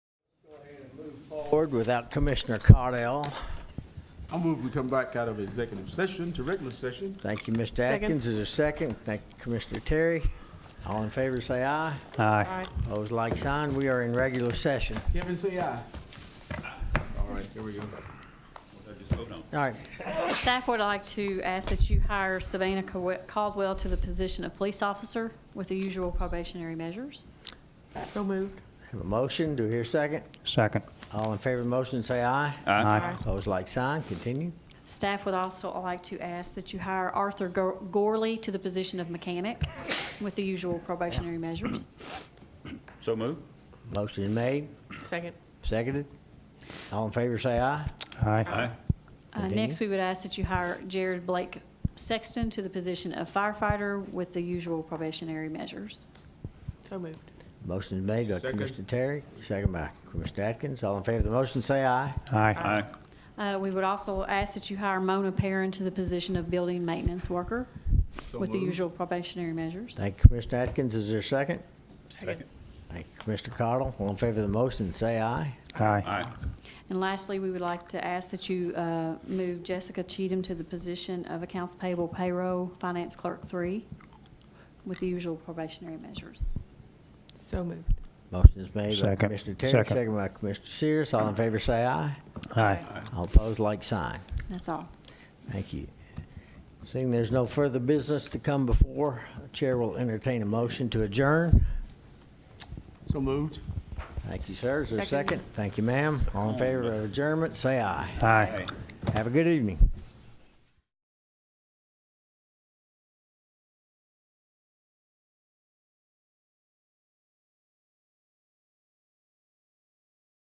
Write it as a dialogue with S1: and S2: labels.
S1: forward without Commissioner Cardell.
S2: I move we come back out of executive session to regular session.
S1: Thank you, Mr.
S3: Second.
S1: Atkins, is there a second. Thank you, Commissioner Terry. All in favor, say aye.
S4: Aye.
S1: Opposed, like sign. We are in regular session.
S2: Kevin, say aye. All right, here we go.
S1: All right,
S3: Staff would like to ask that you hire Savannah Caw- Caldwell to the position of police officer with the usual probationary measures.
S5: So moved.
S1: have a motion, do we hear a second.
S4: Second.
S1: All in favor of the motion, say aye.
S4: Aye.
S1: Opposed, like sign, continue.
S3: Staff would also like to ask that you hire Arthur Go- Gorley to the position of mechanic with the usual probationary measures.
S6: So move.
S1: Motion is made,
S5: Second.
S1: seconded. All in favor, say aye.
S4: Aye.
S3: Uh,
S1: Continue.
S3: Next, we would ask that you hire Jared Blake Sexton to the position of firefighter with the usual probationary measures.
S5: So moved.
S1: Motion is made by
S2: Second.
S1: Commissioner Terry, second by Commissioner Atkins. All in favor of the motion, say aye.
S4: Aye.
S3: Uh, We would also ask that you hire Mona Perrin to the position of building maintenance worker
S2: So
S3: with the
S2: moved.
S3: usual probationary measures.
S1: Thank you, Commissioner Atkins, is there a second?
S6: Second.
S1: Thank you, Commissioner Cardle. All in favor of the motion, say aye.
S4: Aye.
S6: Aye.
S3: And lastly, we would like to ask that you uh, move Jessica Cheatham to the position of accounts payable payroll finance clerk three with the usual probationary measures.
S5: So moved.
S1: Motion is made by
S4: Second.
S1: Commissioner Terry,
S4: Second.
S1: second by Commissioner Sears. All in favor, say aye.
S4: Aye.
S1: All opposed, like sign.
S3: That's all.
S1: Thank you. Seeing there's no further business to come before, Chair will entertain a motion to adjourn.
S2: So moved.
S1: Thank you, sir. Is there a
S5: Second.
S1: second? Thank you, ma'am. All in favor of adjournment, say aye.
S4: Aye.
S1: Have a good evening.